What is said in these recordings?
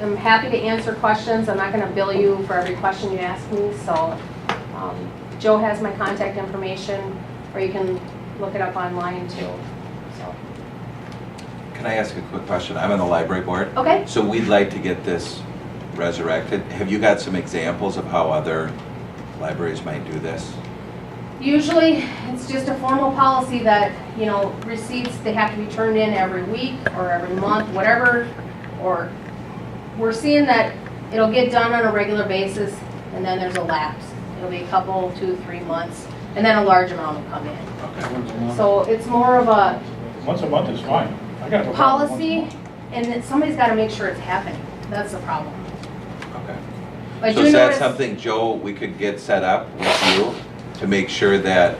am happy to answer questions. I'm not going to bill you for every question you ask me, so um, Joe has my contact information, or you can look it up online too, so. Can I ask a quick question? I'm on the library board. Okay, So we'd like to get this resurrected. Have you got some examples of how other libraries might do this? usually it's just a formal policy that, you know, receipts, they have to be turned in every week or every month, whatever, or we're seeing that it'll get done on a regular basis and then there's a lapse. It'll be a couple, two, three months, and then a large amount will come in. Okay. Once a month. So it's more of a Once a month is fine. I got no problem with once a policy, month. and that somebody's gotta make sure it's happening, that's the problem. Okay. But So you is that notice, something, Joe, we could get set up with you to make sure that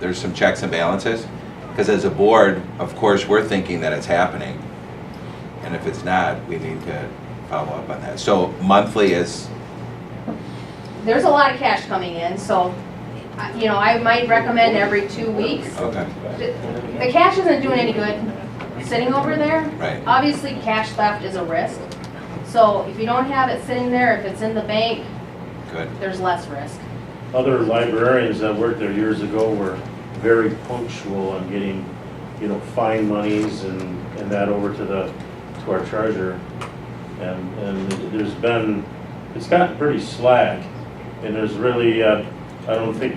there's some checks and balances? Because as a board, of course, we're thinking that it's happening. And if it's not, we need to follow up on that. So monthly is, there's a lot of cash coming in, so, I- you know, I might recommend every two weeks. okay, The cash isn't doing any good sitting over there. right, Obviously, cash theft is a risk, so if you don't have it sitting there, if it's in the bank, good. there's less risk. Other librarians that worked there years ago were very punctual on getting, you know, fine monies and, and that over to the, to our treasurer. And, and there's been, it's gotten pretty slack, and there's really, uh, I don't think,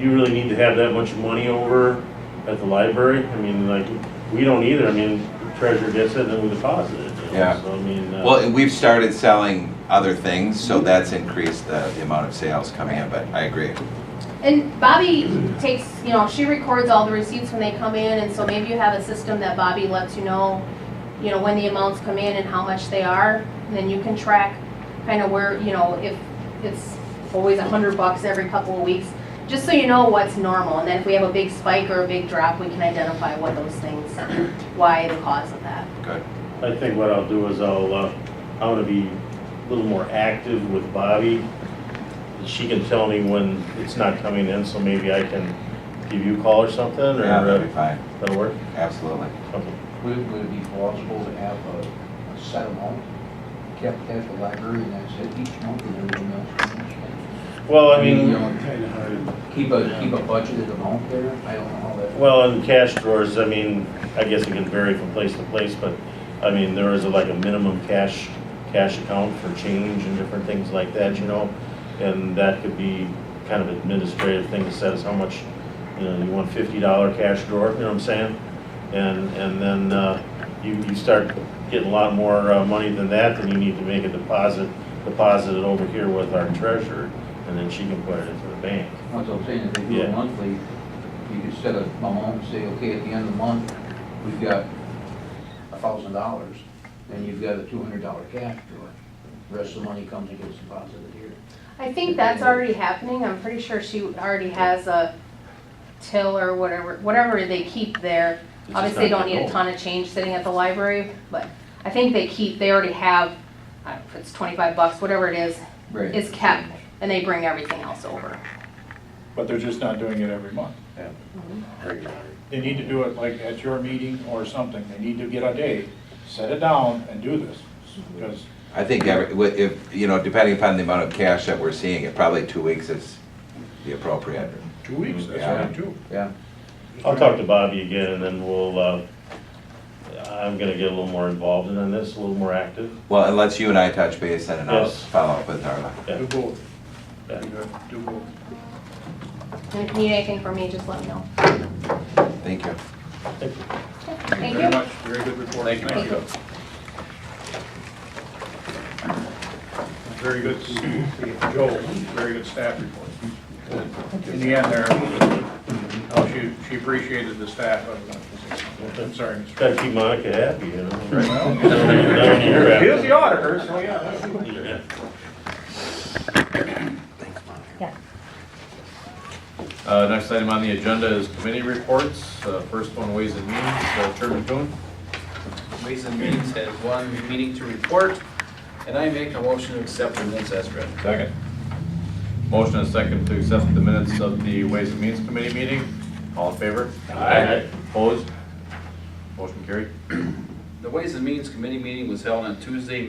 you really need to have that much money over at the library. I mean, like, we don't either, I mean, treasurer gets it, and then we deposit it, you know, Yeah. so I mean. uh, Well, and we've started selling other things, so that's increased the, the amount of sales coming in, but I agree. And Bobby takes, you know, she records all the receipts when they come in, and so maybe you have a system that Bobby lets you know, you know, when the amounts come in and how much they are, then you can track kind of where, you know, if it's always a hundred bucks every couple of weeks, just so you know what's normal, and then if we have a big spike or a big drop, we can identify what those things, why the cause of that. Good. I think what I'll do is I'll, uh, I'm gonna be a little more active with Bobby. She can tell me when it's not coming in, so maybe I can give you a call or something, or Yeah, uh, that'd be fine, that'll work? absolutely. Okay. Would it, would it be possible to have a, a set amount kept at the library and that's it each month and everything else? Well, I mean, Keep a, keep a budgeted amount there? I don't know how that. well, in cash drawers, I mean, I guess it can vary from place to place, but, I mean, there is like a minimum cash, cash account for change and different things like that, you know? And that could be kind of administrative thing that says how much, you know, you want fifty dollar cash drawer, you know what I'm saying? And, and then, uh, you, you start getting a lot more, uh, money than that, then you need to make a deposit, deposit it over here with our treasurer, and then she can put it into the bank. That's what I'm saying, if they do it Yeah. monthly, you could set a amount and say, okay, at the end of the month, we've got a thousand dollars, then you've got a two hundred dollar cash to it. The Rest of the money comes and gets deposited here. I think that's already happening, I'm pretty sure she already has a till or whatever, whatever they keep there. It's just Obviously, they not don't need a controlled. ton of change sitting at the library, but I think they keep, they already have, I don't know, if it's twenty-five bucks, whatever it is, Right. is kept, and they bring everything else over. But they're just not doing it every month. They need to do it like at your meeting or something. They need to get a day, set it down and do this. Because I think every, wi- if, you know, depending upon the amount of cash that we're seeing, it probably two weeks is the appropriate. two weeks, that's what I do. Yeah. I'll talk to Bobby again, and then we'll, uh, I'm gonna get a little more involved in this, a little more active. Well, and let's you and I touch base and then I'll Yes. follow up with Darla. Yeah. Do both. Yeah. You gotta Do both. And if you need anything from me, just let me know. Thank you. Thank very you. much. Very good report. Thank you. Very good, Joe, very good staff report. In the end there, oh, she, she appreciated the staff. I'm sorry, Mr. Gotta keep Monica happy, you know? He was the auditor, so yeah. Uh, Next item on the agenda is committee reports. Uh, First one, Ways and Means, Uh, Chairman Kuhn. Ways and Means has one meeting to report, and I make a motion to accept the minutes as read. Second. Motion and second to accept the minutes of the Ways and Means Committee meeting. All in favor? Aye. Opposed? Motion carried. The Ways and Means Committee meeting was held on Tuesday,